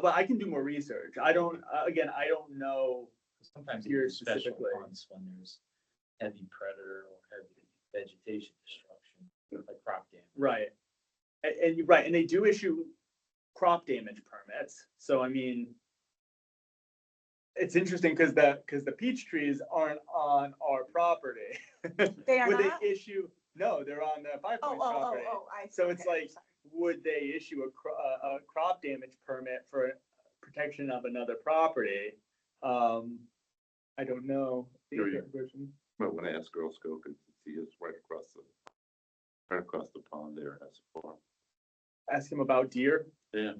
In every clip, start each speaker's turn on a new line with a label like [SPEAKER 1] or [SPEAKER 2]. [SPEAKER 1] but I can do more research. I don't, uh, again, I don't know.
[SPEAKER 2] Sometimes
[SPEAKER 1] Here
[SPEAKER 2] even special
[SPEAKER 1] specifically.
[SPEAKER 2] funds when there's heavy predator or heavy vegetation destruction, like crop damage.
[SPEAKER 1] Right. A- And, you're right, and they do issue crop damage permits, so I mean. It's interesting because the, because the peach trees aren't on our property.
[SPEAKER 3] They are
[SPEAKER 1] Would
[SPEAKER 3] not?
[SPEAKER 1] they issue, no, they're on the Five
[SPEAKER 3] Oh,
[SPEAKER 1] Points
[SPEAKER 3] oh, oh,
[SPEAKER 1] property.
[SPEAKER 3] oh, I.
[SPEAKER 1] So it's
[SPEAKER 3] okay,
[SPEAKER 1] like- Would they issue a, cro- a, a crop damage permit for protection of another property? Um, I don't know. the
[SPEAKER 4] Sure, yeah.
[SPEAKER 1] exact version.
[SPEAKER 4] But when I asked Girl Scout, because he is right across the, right across the pond there as a farm.
[SPEAKER 1] Ask him about deer.
[SPEAKER 4] Yeah.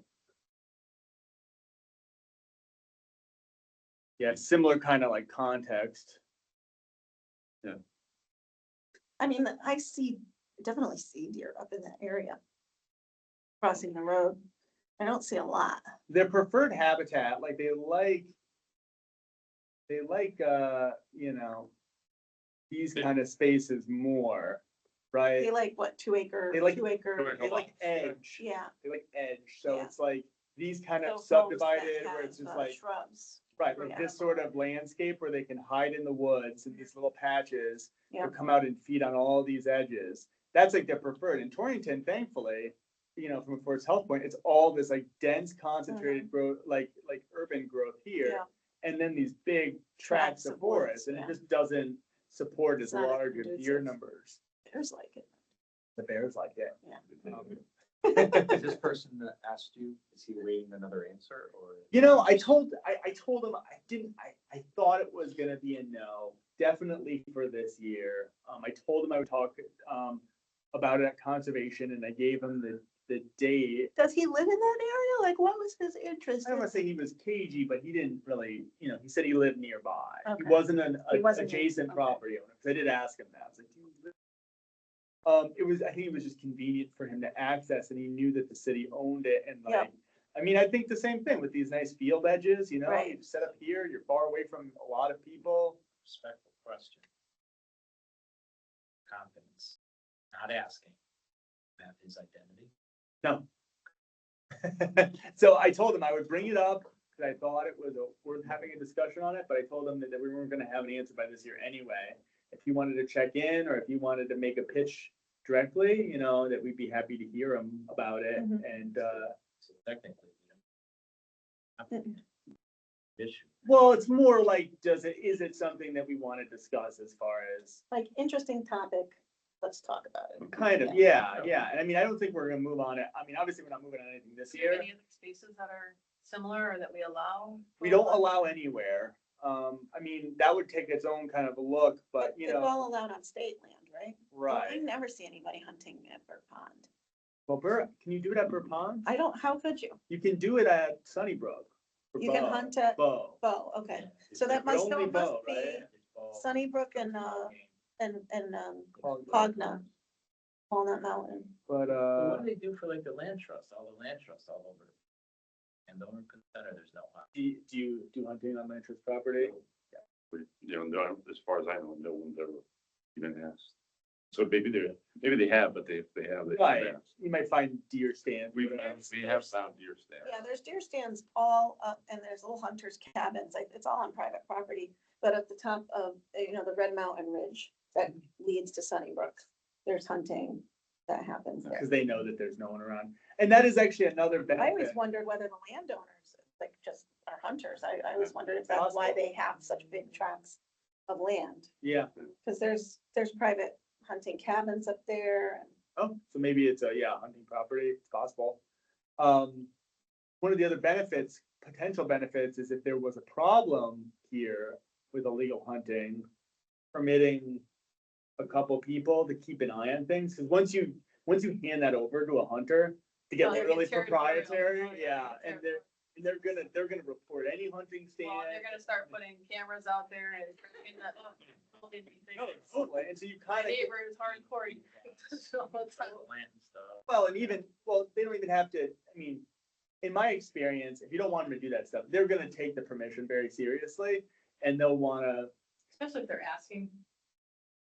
[SPEAKER 1] Yeah, similar kind of like context.
[SPEAKER 3] I mean, I see, definitely see deer up in that area. Crossing the road. I don't see a lot.
[SPEAKER 1] Their preferred habitat, like they like. They like, uh, you know. These
[SPEAKER 4] They-
[SPEAKER 1] kind of spaces more, right?
[SPEAKER 3] They like what, two acre,
[SPEAKER 1] They like-
[SPEAKER 3] two acre,
[SPEAKER 1] They like edge,
[SPEAKER 3] yeah.
[SPEAKER 1] they like edge, so
[SPEAKER 3] Yeah.
[SPEAKER 1] it's like these kind of
[SPEAKER 3] those homes that
[SPEAKER 1] subdivided where
[SPEAKER 3] have,
[SPEAKER 1] it's just
[SPEAKER 3] uh,
[SPEAKER 1] like.
[SPEAKER 3] Shrubs.
[SPEAKER 1] Right, like
[SPEAKER 3] Yeah.
[SPEAKER 1] this sort of landscape where they can hide in the woods in these little patches.
[SPEAKER 3] Yeah.
[SPEAKER 1] Or come out and feed on all these edges. That's like their preferred. In Torrington, thankfully, you know, from a forest health point, it's all this like dense concentrated growth, like, like urban growth here.
[SPEAKER 3] Mm-hmm. Yeah.
[SPEAKER 1] And then these big tracts
[SPEAKER 3] Tracts of
[SPEAKER 1] of forest,
[SPEAKER 3] woods,
[SPEAKER 1] and it
[SPEAKER 3] yeah.
[SPEAKER 1] just doesn't support as
[SPEAKER 3] It's not
[SPEAKER 1] large of deer
[SPEAKER 3] conducive.
[SPEAKER 1] numbers.
[SPEAKER 3] There's like it.
[SPEAKER 1] The bears like it. Um,
[SPEAKER 2] Is this person that asked you, is he waiting another answer or?
[SPEAKER 1] You know, I told, I, I told him, I didn't, I, I thought it was gonna be a no, definitely for this year. Um, I told him I would talk, um, about it at conservation and I gave him the, the date.
[SPEAKER 3] Does he live in that area? Like, what was his interest?
[SPEAKER 1] I don't
[SPEAKER 3] in-
[SPEAKER 1] wanna say he was cagey, but he didn't really, you know, he said he lived nearby. He
[SPEAKER 3] Okay.
[SPEAKER 1] wasn't an
[SPEAKER 3] He
[SPEAKER 1] a-
[SPEAKER 3] wasn't-
[SPEAKER 1] adjacent
[SPEAKER 3] okay.
[SPEAKER 1] property owner, cause I did ask him that, I was like, do you live? Um, it was, I think it was just convenient for him to access and he knew that the city owned it and
[SPEAKER 3] Yeah.
[SPEAKER 1] like, I mean, I think the same thing with these nice field edges, you know,
[SPEAKER 3] Right.
[SPEAKER 1] you set up here, you're far away from a lot of people.
[SPEAKER 2] Respectful question. Confidence, not asking. Have his identity.
[SPEAKER 1] So I told him I would bring it up, cause I thought it was a- worth having a discussion on it, but I told him that that we weren't gonna have an answer by this year anyway. If he wanted to check in or if he wanted to make a pitch directly, you know, that we'd be happy to hear him about it
[SPEAKER 3] Mhm.
[SPEAKER 1] and, uh,
[SPEAKER 2] So technically, you know. Issue.
[SPEAKER 1] Well, it's more like, does it, is it something that we want to discuss as far as,
[SPEAKER 3] Like, interesting topic. Let's talk about it.
[SPEAKER 1] kind of, yeah, yeah, and I mean, I don't think we're gonna move on it, I mean, obviously, we're not moving on anything this
[SPEAKER 5] Do you have
[SPEAKER 1] year.
[SPEAKER 5] any other spaces that are similar or that we allow?
[SPEAKER 1] We
[SPEAKER 5] for-
[SPEAKER 1] don't allow anywhere, um, I mean, that would take its own kind of a look, but you
[SPEAKER 3] It's all
[SPEAKER 1] know,
[SPEAKER 3] allowed on state land, right? Well, I
[SPEAKER 1] right.
[SPEAKER 3] never see anybody hunting at Bird Pond.
[SPEAKER 1] Well, Bur, can you do it at Burr Pond?
[SPEAKER 3] I don't, how could you?
[SPEAKER 1] You can do it at Sunnybrook. for
[SPEAKER 3] You can
[SPEAKER 1] bow-
[SPEAKER 3] hunt at-
[SPEAKER 1] Bow,
[SPEAKER 3] Bow, okay.
[SPEAKER 2] Yeah.
[SPEAKER 3] So that
[SPEAKER 1] But
[SPEAKER 3] must, so
[SPEAKER 1] only
[SPEAKER 3] it must
[SPEAKER 1] bow,
[SPEAKER 3] be
[SPEAKER 1] right?
[SPEAKER 3] Oh. Sunnybrook and, uh, and, and, um,
[SPEAKER 1] Cogna.
[SPEAKER 3] Cogna, Walnut Mountain.
[SPEAKER 1] but,
[SPEAKER 2] Well,
[SPEAKER 1] uh,
[SPEAKER 2] What do they do for like the land trust, all the land trusts all over? And the owner could center, there's no one.
[SPEAKER 1] do you, do you do hunting on land trust property?
[SPEAKER 4] You know, no, as far as I know, no one's ever even asked. So maybe they're, maybe they have, but they, if they have, they
[SPEAKER 1] Right,
[SPEAKER 4] haven't asked.
[SPEAKER 1] you might find deer stands.
[SPEAKER 4] We've,
[SPEAKER 1] whatever.
[SPEAKER 4] we have found deer
[SPEAKER 3] Yeah,
[SPEAKER 4] stand.
[SPEAKER 3] there's deer stands all up and there's little hunters cabins. Like, it's all on private property. But at the top of, uh, you know, the Red Mountain Ridge that leads to Sunnybrook, there's hunting that happens there.
[SPEAKER 1] because they know that there's no one around. And that is actually another
[SPEAKER 3] I always
[SPEAKER 1] benefit.
[SPEAKER 3] wondered whether the landowners, like, just are hunters. I, I always wondered if that's why
[SPEAKER 1] Possible.
[SPEAKER 3] they have such big tracts of land.
[SPEAKER 1] Yeah.
[SPEAKER 3] Cause there's, there's private hunting cabins up there and
[SPEAKER 1] Oh, so maybe it's a, yeah, hunting property, it's possible. Um, one of the other benefits, potential benefits, is if there was a problem here with illegal hunting, permitting a couple people to keep an eye on things, because once you, once you hand that over to a hunter, to get
[SPEAKER 5] Oh, they're
[SPEAKER 1] really
[SPEAKER 5] territorial.
[SPEAKER 1] proprietary,
[SPEAKER 5] Oh,
[SPEAKER 1] yeah, and they're,
[SPEAKER 5] territorial.
[SPEAKER 1] and they're gonna, they're gonna report any hunting stand.
[SPEAKER 5] Well, they're gonna start putting cameras out there and. freaking that up. Holding these things.
[SPEAKER 1] No, totally, Oh, and so you
[SPEAKER 5] My
[SPEAKER 1] kind of.
[SPEAKER 5] neighbor is hardcore. he does it all the time.
[SPEAKER 2] Plant and stuff.
[SPEAKER 1] Well, and even, well, they don't even have to, I mean, in my experience, if you don't want them to do that stuff, they're gonna take the permission very seriously. And they'll wanna,
[SPEAKER 5] Especially if they're asking.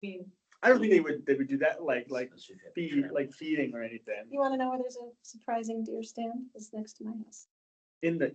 [SPEAKER 5] I mean,
[SPEAKER 1] I don't think they would, they would do that like, like
[SPEAKER 2] Specific.
[SPEAKER 1] feed, like feeding or anything
[SPEAKER 3] you wanna know where there's a surprising deer stand? It's next to my house.
[SPEAKER 1] in the,